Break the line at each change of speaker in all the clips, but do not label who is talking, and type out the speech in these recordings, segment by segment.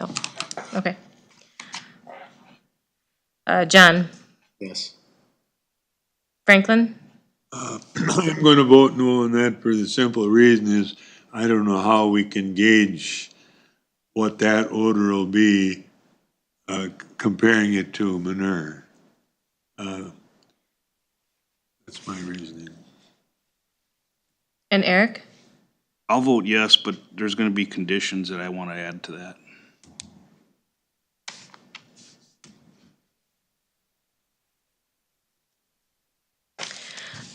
Oh, Okay. Uh, John,
Yes.
Franklin,
I'm gonna vote no on that for the simple reason is, I don't know how we can gauge what that odor will be, uh, comparing it to manure. Uh, That's my reasoning.
and Eric?
I'll vote yes, but there's gonna be conditions that I wanna add to that.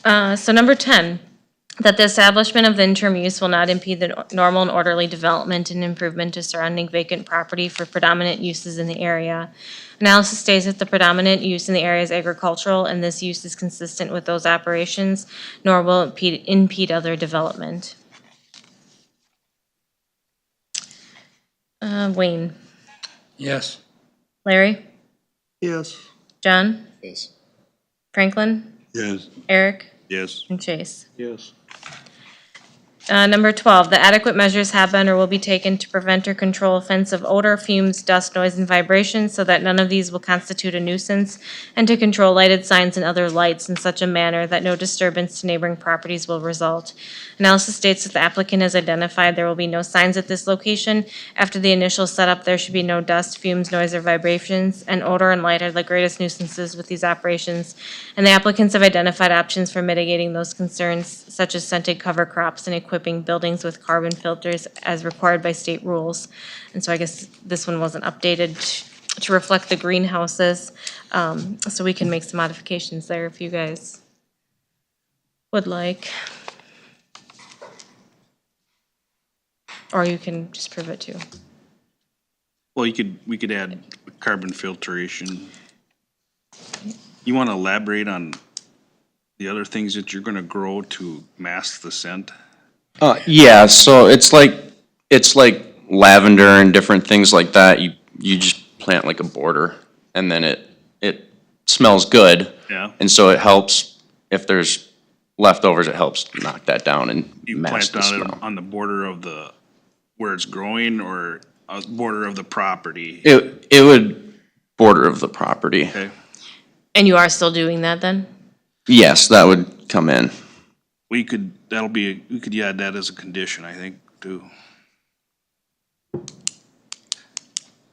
Uh, so number ten, that the establishment of the interim use will not impede the nor- normal and orderly development and improvement to surrounding vacant property for predominant uses in the area. Analysis states that the predominant use in the area is agricultural, and this use is consistent with those operations, nor will it impede, impede other development. Uh, Wayne,
Yes.
Larry,
Yes.
John,
Yes.
Franklin,
Yes,
Eric,
Yes.
and Chase.
Yes.
Uh, number twelve, the adequate measures have been or will be taken to prevent or control offensive odor, fumes, dust, noise, and vibrations so that none of these will constitute a nuisance, and to control lighted signs and other lights in such a manner that no disturbance to neighboring properties will result. Analysis states that the applicant has identified there will be no signs at this location. After the initial setup, there should be no dust, fumes, noise, or vibrations, and odor and light are the greatest nuisances with these operations. And the applicants have identified options for mitigating those concerns, such as scented cover crops and equipping buildings with carbon filters as required by state rules. And so I guess this one wasn't updated t- to reflect the greenhouses, um, so we can make some modifications there if you guys would like. Or you can just prove it too.
Well, you could, we could add carbon filtration. You wanna elaborate on the other things that you're gonna grow to mask the scent?
Uh, yeah, so it's like, it's like lavender and different things like that. You, you just plant like a border and then it, it smells good.
Yeah.
And so it helps, if there's leftovers, it helps knock that down and
You plant
mask the
on it
smell.
on the border of the, where it's growing or a border of the property,
It, it would border of the property.
okay?
And you are still doing that then?
Yes, that would come in.
We could, that'll be, we could add that as a condition, I think, too.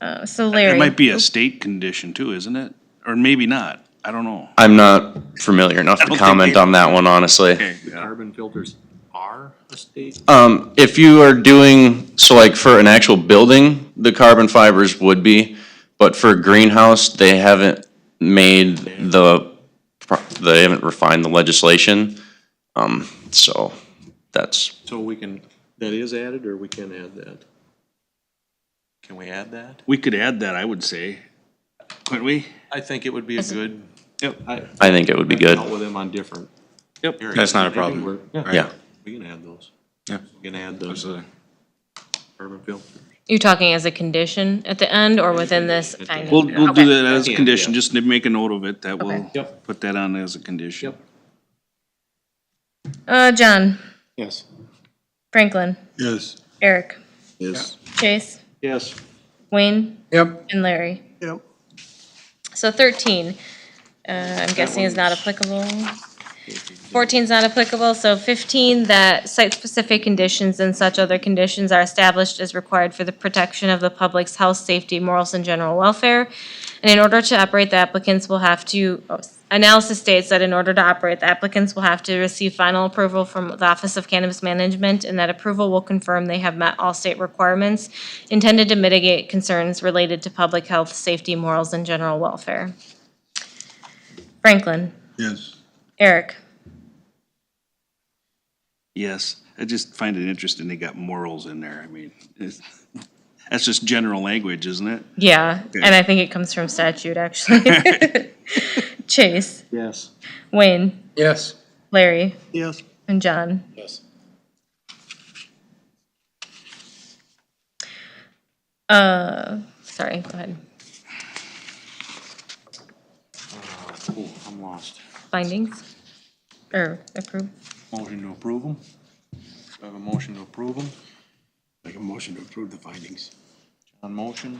Uh, So
It
Larry,
might be a state condition too, isn't it? Or maybe not, I don't know.
I'm not familiar enough
don't
to
think
comment
either.
on that one, honestly.
Okay, yeah.
Carbon filters are a state?
Um, if you are doing, so like for an actual building, the carbon fibers would be, but for a greenhouse, they haven't made the, pro- they haven't refined the legislation. Um, so that's,
So we can, that is added or we can add that? Can we add that?
We could add that, I would say, couldn't we?
I think it would be a good.
Yep.
I
I think it would be good.
Dealt with them on different.
Yep.
areas.
That's not a
They can
problem.
work.
Yeah.
We can add those.
Yeah.
We can add those
Absolutely.
carbon filters.
you're talking as a condition at the end or within this finding?
We'll, we'll
Okay.
do that as a
Yeah.
condition, just to make a note of it, that we'll
Okay.
Yep.
put that on as a condition.
Yep.
Uh, John,
Yes.
Franklin,
yes.
Eric,
Yes.
Chase,
Yes.
Wayne,
Yep.
and Larry.
Yep.
So thirteen, uh, I'm guessing is not applicable. Fourteen's not applicable, so fifteen, that site-specific conditions and such other conditions are established as required for the protection of the public's health, safety, morals, and general welfare. And in order to operate, the applicants will have to, oh, analysis states that in order to operate, the applicants will have to receive final approval from the Office of Cannabis Management, and that approval will confirm they have met all state requirements intended to mitigate concerns related to public health, safety, morals, and general welfare. Franklin,
Yes.
Eric,
Yes, I just find it interesting they got morals in there, I mean, it's, that's just general language, isn't it?
yeah, and I think it comes from statute, actually. Chase,
Yes.
Wayne,
Yes.
Larry,
Yes.
and John.
Yes.
Uh, sorry, go ahead.
Oh, I'm lost.
Findings? Or approve?
Motion to approve them? I have a motion to approve them?
Make a motion to approve the findings.
On motion?